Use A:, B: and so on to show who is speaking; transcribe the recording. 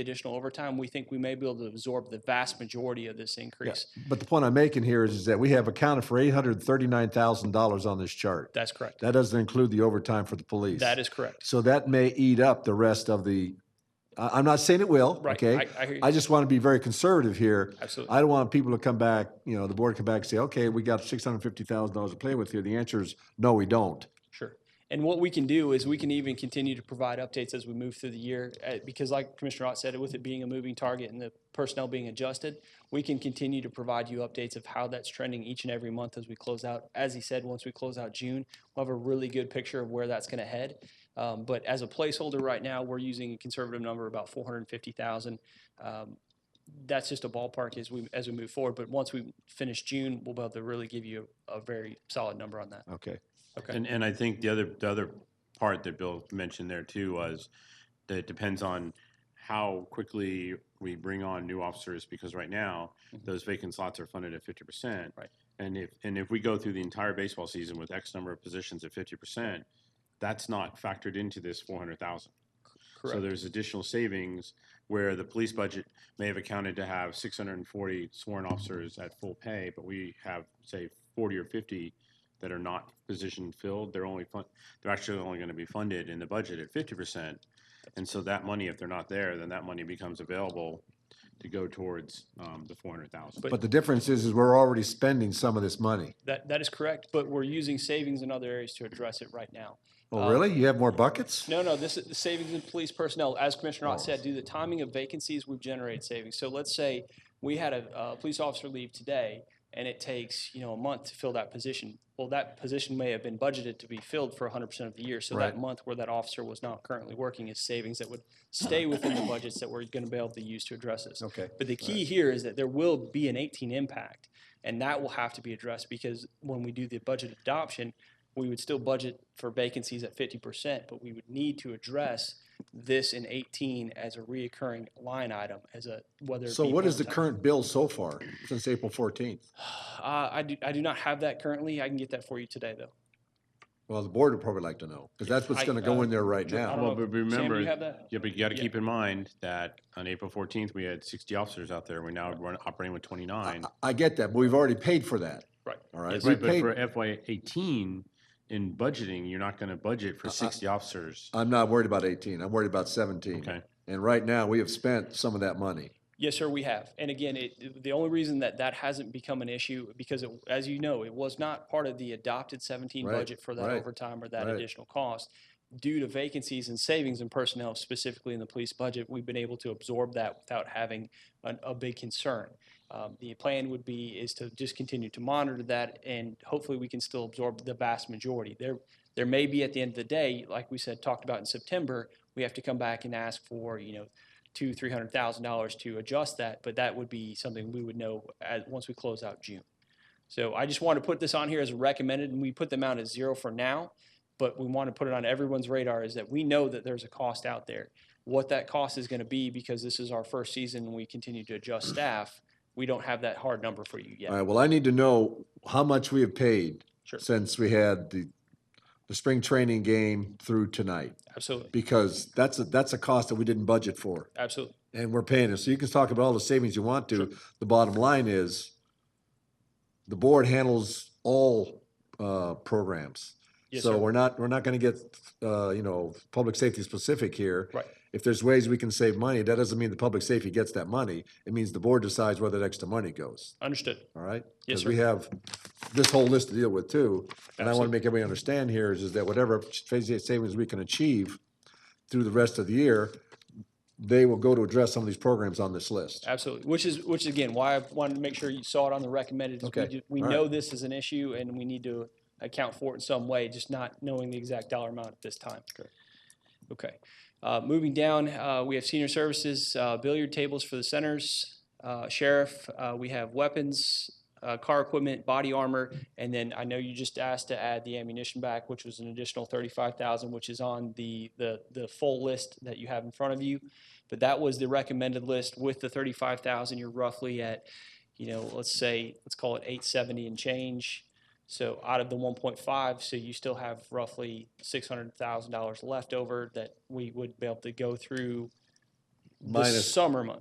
A: additional overtime, we think we may be able to absorb the vast majority of this increase.
B: But the point I'm making here is, is that we have accounted for eight hundred thirty-nine thousand dollars on this chart.
A: That's correct.
B: That doesn't include the overtime for the police.
A: That is correct.
B: So that may eat up the rest of the, I, I'm not saying it will,
A: Right.
B: okay?
A: I, I hear you.
B: I just want to be very conservative here.
A: Absolutely.
B: I don't want people to come back, you know, the board come back and say, okay, we got six hundred fifty thousand dollars to play with here. The answer is, no, we don't.
A: Sure. And what we can do is we can even continue to provide updates as we move through the year, uh, because like Commissioner Ott said, with it being a moving target and the personnel being adjusted, we can continue to provide you updates of how that's trending each and every month as we close out. As he said, once we close out June, we'll have a really good picture of where that's going to head. Um, But as a placeholder right now, we're using a conservative number, about 450,000. Um, That's just a ballpark as we, as we move forward. But once we finish June, we'll be able to really give you a a very solid number on that.
B: Okay.
A: Okay.
C: And, and I think the other, the other part that Bill mentioned there too was that it depends on how quickly we bring on new officers, because right now,
A: Mhm.
C: those vacant slots are funded at fifty percent.
A: Right.
C: And if, and if we go through the entire baseball season with X number of positions at fifty percent, that's not factored into this four hundred thousand. So
A: Correct.
C: there's additional savings where the police budget may have accounted to have six hundred and forty sworn officers at full pay, but we have, say, forty or fifty that are not position filled. They're only fun, they're actually only going to be funded in the budget at fifty percent. And so that money, if they're not there, then that money becomes available to go towards um, the four hundred thousand.
A: But-
B: But the difference is, is we're already spending some of this money.
A: That, that is correct, but we're using savings in other areas to address it right now.
B: Oh,
A: Um,
B: really? You have more buckets?
A: No, no, this is the savings in police personnel. As Commissioner Ott said, due to the timing of vacancies, we've generated savings. So let's say we had a, uh police officer leave today and it takes, you know, a month to fill that position. Well, that position may have been budgeted to be filled for hundred percent of the year. So
B: Right.
A: that month where that officer was not currently working is savings that would stay within the budgets that we're going to be able to use to address this.
B: Okay.
A: But the key here is that there will be an 18 impact, and that will have to be addressed because when we do the budget adoption, we would still budget for vacancies at 50%, but we would need to address this in 18 as a reoccurring line item, as a whether. it
B: So
A: be
B: what is the
A: one-time-
B: current bill so far since April fourteenth?
A: Uh, I do, I do not have that currently. I can get that for you today, though.
B: Well, the board would probably like to know, because that's what's
A: I-
B: going to go
A: uh,
B: in there right
A: Dr- I
B: now.
A: don't
C: Well,
A: know. Sam,
C: but
A: do
C: remember-
A: you have that?
C: Yeah, but you got to
A: Yeah.
C: keep in mind that on April fourteenth, we had sixty officers out there. We're now run- operating with
B: I,
C: twenty-nine.
B: I get that, but we've already paid for that.
A: Right.
B: All right.
A: Yes.
B: we
C: Right, but
B: paid.
C: for FY eighteen, in budgeting, you're not gonna budget
B: Uh,
C: for sixty officers.
B: I'm not worried about eighteen. I'm worried about seventeen.
C: Okay,
B: And right now, we have spent some of that money.
A: Yes, sir, we have. And again, it, the only reason that that hasn't become an issue, because it, as you know, it was not part of the adopted seventeen
B: Right,
A: budget for that
B: right,
A: overtime or that
B: right.
A: additional cost. Due to vacancies and savings in personnel, specifically in the police budget, we've been able to absorb that without having an, a big concern. Um, the plan would be is to just continue to monitor that and hopefully we can still absorb the vast majority. There, there may be at the end of the day, like we said, talked about in September, we have to come back and ask for, you know, two, three hundred thousand dollars to adjust that, but that would be something we would know at, once we close out June. So I just want to put this on here as recommended, and we put the amount at zero for now, but we want to put it on everyone's radar is that we know that there's a cost out there. What that cost is going to be, because this is our first season and we continue to adjust staff, we don't have that hard number for you
B: All
A: yet.
B: right, well, I need to know how much we have paid
A: Sure.
B: since we had the, the spring training game through tonight,
A: Absolutely,
B: because that's a, that's a cost that we didn't budget for,
A: absolutely.
B: and we're paying it. So you can talk about all the savings you want to. The bottom line is, the board handles all, uh, programs.
A: Yes,
B: So
A: sir.
B: we're not, we're not going to get, uh, you know, public safety specific here.
A: Right.
B: If there's ways we can save money, that doesn't mean the public safety gets that money. It means the board decides where that extra money goes,
A: Understood.
B: all right?
A: Yes,
B: Because
A: sir.
B: we have this whole list to deal with too. And I want to
A: Absolutely.
B: make everybody understand here is, is that whatever phase eight savings we can achieve through the rest of the year, they will go to address some of these programs on this list.
A: Absolutely, which is, which is again, why I wanted to make sure you saw it on the recommended. is we
B: Okay.
A: ju- We
B: All right.
A: know this is an issue and we need to account for it in some way, just not knowing the exact dollar amount at this time.
B: Okay.
A: Okay, Uh, moving down, uh, we have senior services, uh, billiard tables for the centers, uh, sheriff, uh, we have weapons, uh, car equipment, body armor, and then I know you just asked to add the ammunition back, which was an additional thirty-five thousand, which is on the, the, the full list that you have in front of you. But that was the recommended list with the thirty-five thousand, you're roughly at, you know, let's say, let's call it eight seventy and change. So out of the one point five, so you still have roughly six hundred thousand dollars left over that we would be able to go through the
B: minus
A: summer months.